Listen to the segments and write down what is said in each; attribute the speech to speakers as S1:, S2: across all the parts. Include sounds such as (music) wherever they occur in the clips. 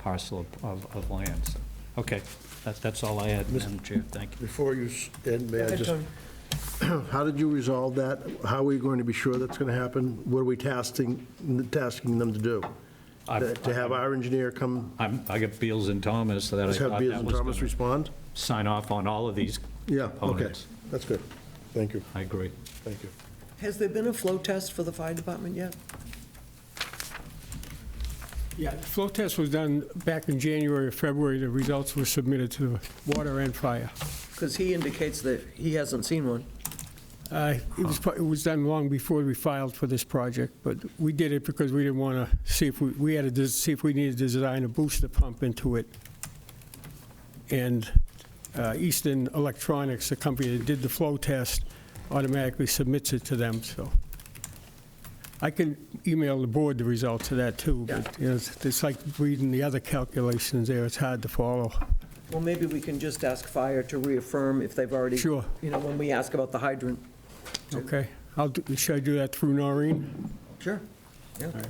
S1: parcel of- of, of land. So, Okay, that's, that's all I had, Madam Chair, thank you.
S2: Before you s- end, may I
S3: ahead,
S2: just,
S3: Tony.
S2: (clears throat) how did you resolve that? How are we going to be sure that's going to happen? What are we tasking, tasking them to do?
S1: I've-
S2: To have our engineer come,
S1: I'm, I got Beals and Thomas that I
S2: just have
S1: thought
S2: Beals
S1: that
S2: and
S1: was
S2: Thomas
S1: gonna
S2: respond?
S1: sign off on all of these.
S2: Yeah, okay,
S1: components.
S2: that's good. Thank you,
S1: I agree.
S2: thank you.
S3: Has there been a flow test for the fire department yet?
S4: Yeah, the flow test was done back in January or February. The results were submitted to water and fire.
S3: Because he indicates that he hasn't seen one.
S4: Uh, It was, pro- it was done long before we filed for this project, but we did it because we didn't want to see if we, we had to des- see if we needed to design a booster pump into it. And uh, Eastern Electronics, the company that did the flow test, automatically submits it to them, so. I can email the board the results of that too, but you know, it's it's like reading the other calculations there. It's hard to follow.
S3: Well, maybe we can just ask fire to reaffirm if they've already.
S4: Sure.
S3: You know, when we ask about the hydrant.
S4: Okay, I'll, do- should I do that through Noreen?
S3: Sure. Yeah.
S4: right.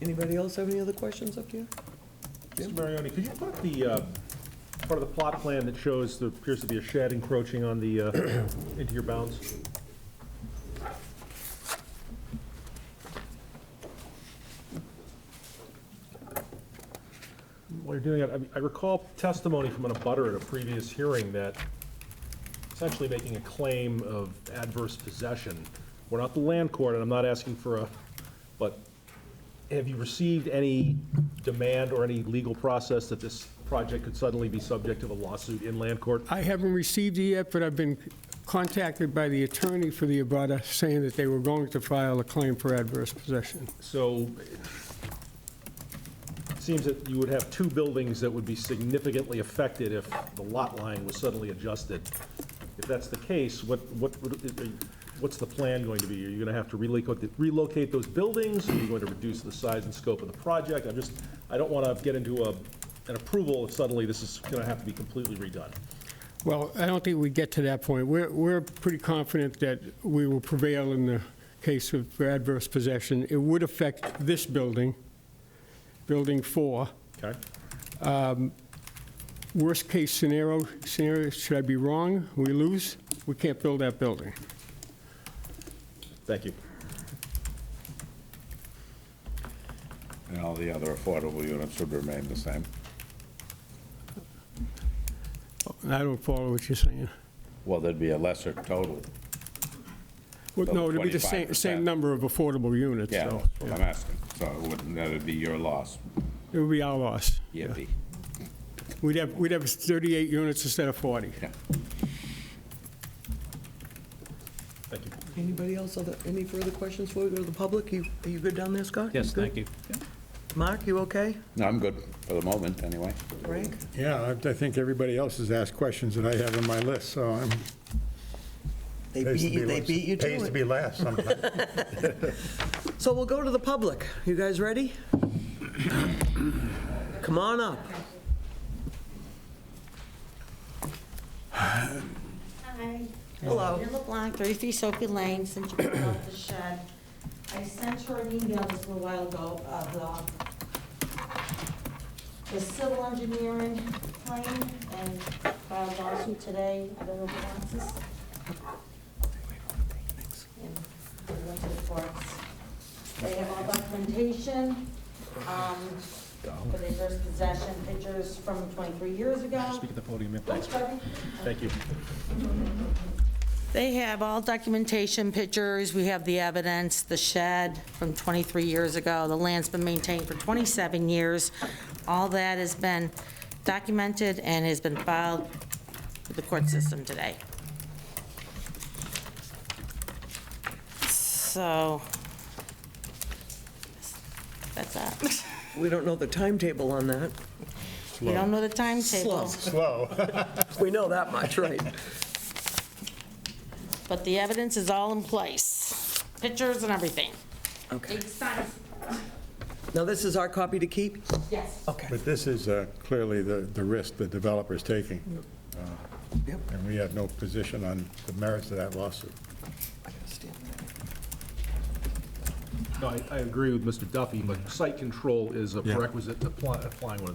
S3: Anybody else have any other questions up here?
S5: Mr. Marioni, could you put up the uh, part of the plot plan that shows there appears to be a shed encroaching on the, uh, into your bounds? While you're doing it, I- I recall testimony from an abutter at a previous hearing that essentially making a claim of adverse possession. We're not the land court, and I'm not asking for a, but have you received any demand or any legal process that this project could suddenly be subject of a lawsuit in land court?
S4: I haven't received it yet, but I've been contacted by the attorney for the abutter saying that they were going to file a claim for adverse possession.
S5: So it seems that you would have two buildings that would be significantly affected if the lot line was suddenly adjusted. If that's the case, what, what, would- what's the plan going to be? Are you going to have to relocate, the- relocate those buildings? Are you going to reduce the size and scope of the project? I'm just, I don't want to get into a, an approval if suddenly this is going to have to be completely redone.
S4: Well, I don't think we get to that point. We're, we're pretty confident that we will prevail in the case of for adverse possession. It would affect this building, Building 4.
S5: Okay?
S4: Worst-case scenario, scenario, should I be wrong, we lose, we can't build that building.
S5: Thank you.
S6: And all the other affordable units would remain the same.
S4: And I don't follow what you're saying.
S6: Well, there'd be a lesser total.
S4: Well, No, it'd be the same,
S6: 25%.
S4: same number of affordable units,
S6: Yeah,
S4: so.
S6: that's what I'm asking. So it wouldn't, that'd be your loss.
S4: It would be our loss.
S6: Yippee.
S4: We'd have, we'd have 38 units instead of 40.
S6: Yeah.
S5: Thank you.
S3: Anybody else, other, any further questions before we go to the public? You, are you good down there, Scott?
S1: Yes, thank you.
S3: Good? Mark, you okay?
S6: No, I'm good for the moment, anyway.
S3: Frank?
S7: Yeah, I- I think everybody else has asked questions that I have on my list, so I'm...
S3: They beat you, they beat you
S7: Pays to
S3: to it.
S7: be last sometimes.
S3: So we'll go to the public. You guys ready? Come on up.
S8: Hi.
S3: Hello.
S8: Linda LeBlanc, 33 Sophie Lane, since you brought up the shed. I sent her an email just a little while ago of the, the civil engineering claim and filed lawsuit today. I don't know if it wants us. And we went to the courts. They have all documentation, um, for their first possession, pictures from 23 years ago. Speak at the podium, Thanks, Debbie.
S5: Thank you.
S8: They have all documentation, pictures, we have the evidence, the shed from 23 years ago, the land's been maintained for 27 years. All that has been documented and has been filed with the court system today. So, that's that.
S3: We don't know the timetable on that.
S8: We don't know the timetable,
S3: Slow. We know that much, right?
S8: but the evidence is all in place, pictures and everything.
S3: Okay.
S8: Big signs,
S3: Now, this is our copy to keep?
S8: yes.
S3: Okay.
S7: But this is uh, clearly the the risk the developer's taking, Uh,
S3: Yep.
S7: and we have no position on the merits of that lawsuit.
S5: No, I, I agree with Mr. Duffy, but site control is a
S1: Yeah.
S5: prerequisite to apply- applying one of these